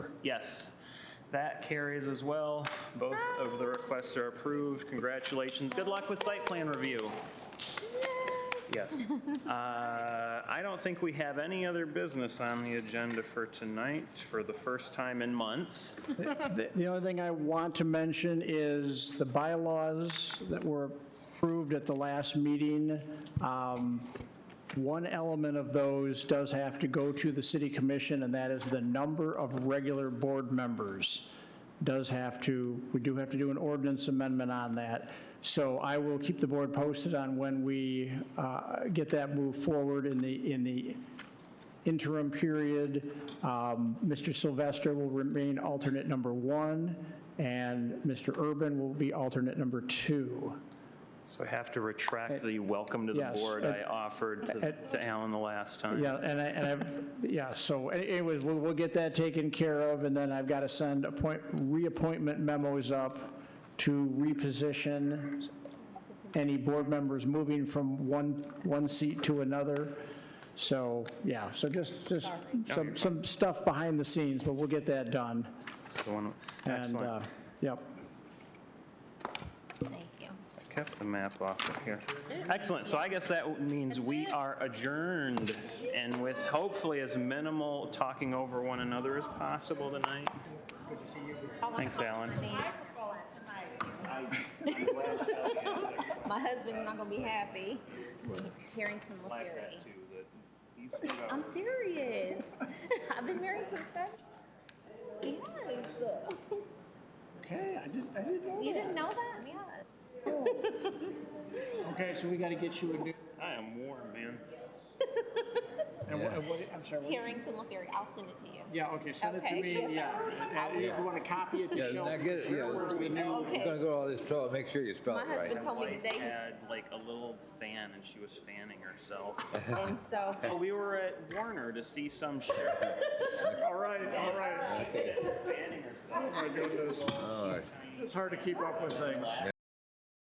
Yes. That carries as well. Both of the requests are approved. Congratulations. Good luck with site plan review. Yes. Uh, I don't think we have any other business on the agenda for tonight for the first time in months. The the only thing I want to mention is the bylaws that were approved at the last meeting. Um, One element of those does have to go to the city commission, and that is the number of regular board members does have to, we do have to do an ordinance amendment on that. So I will keep the board posted on when we uh, get that moved forward in the, in the interim period. Um, Mr. Sylvester will remain alternate number one, and Mr. Urban will be alternate number two. So I have to retract the welcome to the Yes, board at- I offered to- at- to Alan the last time. Yeah, and I, and I've, yeah, so a- anyways, we'll, we'll get that taken care of, and then I've got to send appoint, reappointment memos up to reposition any board members moving from one, one seat to another. So, yeah, so just, just some, some stuff behind the scenes, but we'll get that done. That's the one. And, Excellent. uh, yep. Thank you. Kept the map off of here. Excellent, so I guess that means we are adjourned, and with hopefully as minimal talking over one another as possible tonight. Thanks, Alan. My husband's not gonna be happy. Harrington LaFury. I'm serious. I've been married since Feb. Yes. Okay, I didn't, I didn't You didn't know that? Yes. Okay, so we got to get you a new, I am warm, man. and what, and what- I'm sorry, what- Harrington LaFury. I'll send it to you. yeah, okay, send it to Okay. me, yeah. And if you want to copy it Yeah, to show. now get it, yeah. where's the new- You're gonna Okay. go to all this trouble, make sure you spell My it right. husband told me Like, today, had like a little fan, and she was fanning herself. and so But we were at Warner to see some show. All right, all right. Fanning herself. Oh, my goodness. All right. It's hard to keep up with things.